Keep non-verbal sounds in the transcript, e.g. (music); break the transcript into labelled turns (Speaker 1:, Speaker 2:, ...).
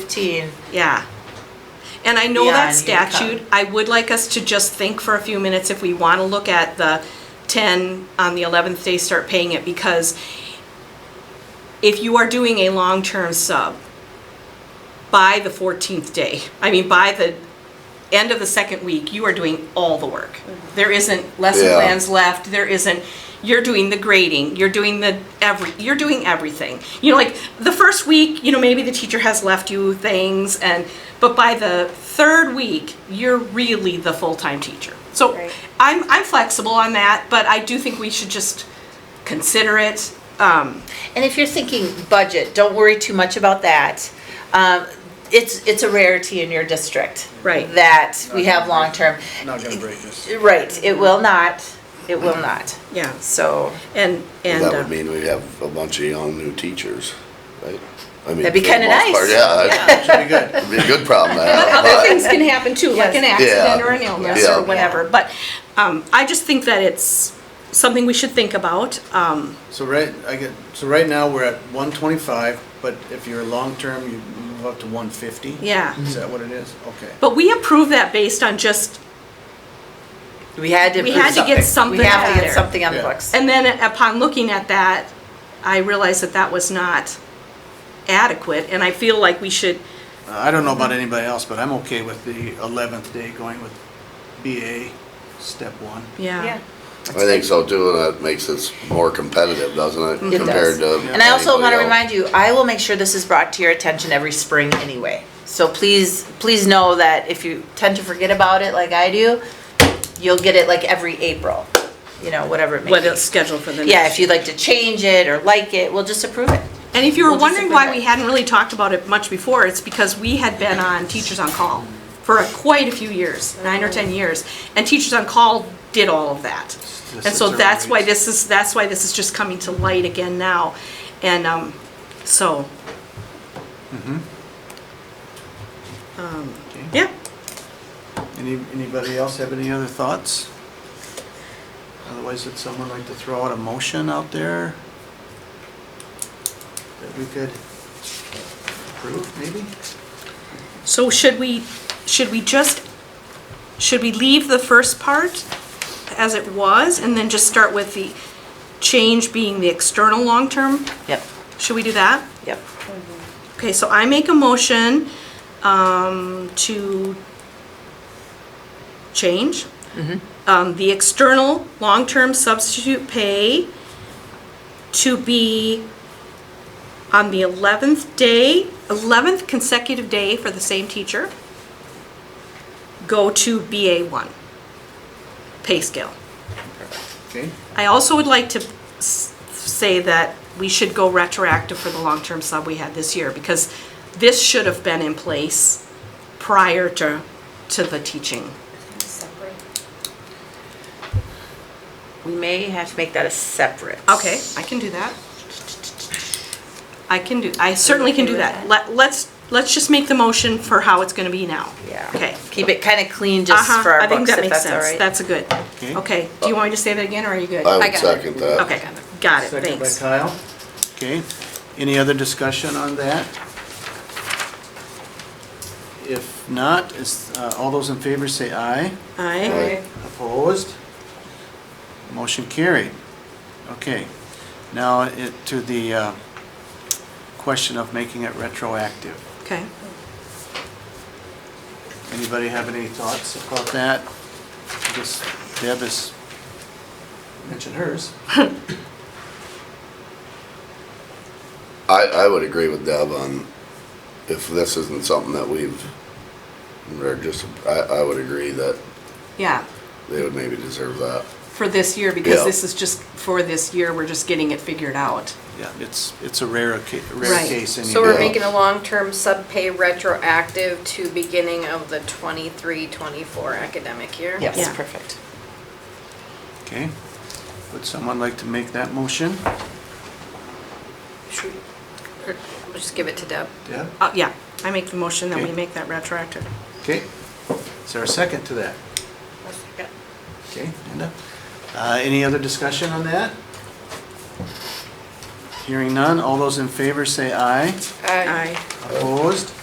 Speaker 1: 15.
Speaker 2: Yeah. And I know
Speaker 1: Yeah,
Speaker 2: that
Speaker 1: and you cut.
Speaker 2: statute, I would like us to just think for a few minutes if we want to look at the 10 on the 11th day, start paying it, because if you are doing a long-term sub by the 14th day, I mean, by the end of the second week, you are doing all the work. There isn't lesson
Speaker 3: Yeah.
Speaker 2: plans left, there isn't, you're doing the grading, you're doing the every, you're doing everything. You know, like, the first week, you know, maybe the teacher has left you things and, but by the third week, you're really the full-time teacher. So
Speaker 1: Right.
Speaker 2: I'm, I'm flexible on that, but I do think we should just consider it. Um,
Speaker 1: And if you're thinking budget, don't worry too much about that. Um, It's, it's a rarity in your district.
Speaker 2: Right.
Speaker 1: That we have long-term.
Speaker 4: Not gonna break this.
Speaker 1: Right, it will not, it will not.
Speaker 2: yeah,
Speaker 1: So
Speaker 2: and, and.
Speaker 3: That
Speaker 2: uh,
Speaker 3: would mean we have a bunch of young new teachers, right? I mean,
Speaker 1: That'd be
Speaker 3: for the
Speaker 1: kinda
Speaker 3: most part,
Speaker 1: nice.
Speaker 2: uh, (laughs)
Speaker 3: Yeah,
Speaker 4: Should be good.
Speaker 3: it'd be a good problem to
Speaker 2: But
Speaker 3: have,
Speaker 2: other
Speaker 3: but-
Speaker 2: things can happen too, like an
Speaker 1: Yes.
Speaker 2: accident
Speaker 3: Yeah.
Speaker 2: or an illness
Speaker 3: Yeah.
Speaker 2: or whatever. But um, I just think that it's something we should think about. Um,
Speaker 4: So right, I get, so right now, we're at one twenty-five, but if you're long-term, you move up to one fifty?
Speaker 2: Yeah.
Speaker 4: Is that what it is? Okay.
Speaker 2: but we approve that based on just,
Speaker 1: we had to.
Speaker 2: We had to get something
Speaker 1: We have
Speaker 2: out
Speaker 1: to get
Speaker 2: there.
Speaker 1: something on the
Speaker 4: Yeah.
Speaker 1: books.
Speaker 2: and then upon looking at that, I realized that that was not adequate, and I feel like we should,
Speaker 4: Uh, I don't know about anybody else, but I'm okay with the eleventh day going with BA, step one.
Speaker 2: yeah.
Speaker 3: I think so too, and that makes us more competitive, doesn't
Speaker 1: It
Speaker 3: it?
Speaker 1: does.
Speaker 3: Compared to
Speaker 1: And I also want
Speaker 3: anybody
Speaker 1: to
Speaker 3: else.
Speaker 1: remind you, I will make sure this is brought to your attention every spring anyway. So please, please know that if you tend to forget about it like I do, you'll get it like every April, you know, whatever it may be.
Speaker 2: What is scheduled for the next.
Speaker 1: Yeah, if you'd like to change it or like it, we'll just approve it.
Speaker 2: And if you were
Speaker 1: We'll just
Speaker 2: wondering why
Speaker 1: approve
Speaker 2: we
Speaker 1: it.
Speaker 2: hadn't really talked about it much before, it's because we had been on Teachers on Call for a- quite a few years, nine or 10 years, and Teachers on Call did all of that.
Speaker 4: Just
Speaker 2: And so
Speaker 4: observe
Speaker 2: that's why
Speaker 4: rates.
Speaker 2: this is, that's why this is just coming to light again now. And um, so,
Speaker 4: Okay.
Speaker 2: Um, yeah,
Speaker 4: Any, anybody else have any other thoughts? Otherwise, would someone like to throw out a motion out there? That we could approve, maybe?
Speaker 2: so should we, should we just, should we leave the first part as it was and then just start with the change being the external long-term?
Speaker 1: Yep,
Speaker 2: Should we do that?
Speaker 1: yep.
Speaker 2: Okay, so I make a motion um, to change um, the external long-term substitute pay to be on the 11th day, 11th consecutive day for the same teacher, go to BA1 pay scale.
Speaker 4: Okay,
Speaker 2: I also would like to s- say that we should go retroactive for the long-term sub we had this year, because this should have been in place prior to, to the teaching.
Speaker 1: We may have to make that a separate.
Speaker 2: Okay, I can do that. I can do, I certainly can do that. Let, let's, let's just make the motion for how it's gonna be now.
Speaker 1: Yeah.
Speaker 2: Okay.
Speaker 1: Keep it kind of clean just
Speaker 2: Uh-huh,
Speaker 1: for our
Speaker 2: I think
Speaker 1: books,
Speaker 2: that
Speaker 1: if
Speaker 2: makes
Speaker 1: that's all
Speaker 2: sense.
Speaker 1: right.
Speaker 2: That's a good,
Speaker 4: Okay.
Speaker 2: okay. Do you want me to say that again, or are you good?
Speaker 3: I
Speaker 2: got
Speaker 3: would
Speaker 2: it.
Speaker 3: second that.
Speaker 2: Okay, got it,
Speaker 4: Second by
Speaker 2: thanks.
Speaker 4: Kyle. Okay, any other discussion on that? If not, is, uh, all those in favor say aye.
Speaker 2: Aye.
Speaker 3: Right.
Speaker 4: Opposed? Motion carried. Okay, now it, to the, uh, question of making it retroactive.
Speaker 2: okay.
Speaker 4: Anybody have any thoughts about that? I guess Deb has mentioned hers.
Speaker 3: I, I would agree with Deb on if this isn't something that we've, or just, I, I would agree that
Speaker 2: Yeah.
Speaker 3: they would maybe deserve that.
Speaker 2: for this year, because
Speaker 3: Yeah.
Speaker 2: this is just for this year, we're just getting it figured out.
Speaker 4: Yeah, it's, it's a rare ca- rare
Speaker 2: Right.
Speaker 4: case anyway.
Speaker 5: So we're
Speaker 3: Yeah.
Speaker 5: making a long-term sub pay retroactive to beginning of the 23-24 academic year?
Speaker 1: Yes,
Speaker 2: Yeah.
Speaker 1: perfect.
Speaker 4: Okay, would someone like to make that motion?
Speaker 5: Should we- or we'll Just give it to Deb.
Speaker 4: Deb?
Speaker 2: Uh, yeah, I make the motion that we
Speaker 4: Okay.
Speaker 2: make that retroactive.
Speaker 4: Okay, is there a second to that? Okay, Linda? Uh, any other discussion on that? Hearing none, all those in favor say aye.
Speaker 5: Uh,
Speaker 2: Aye.
Speaker 4: Opposed?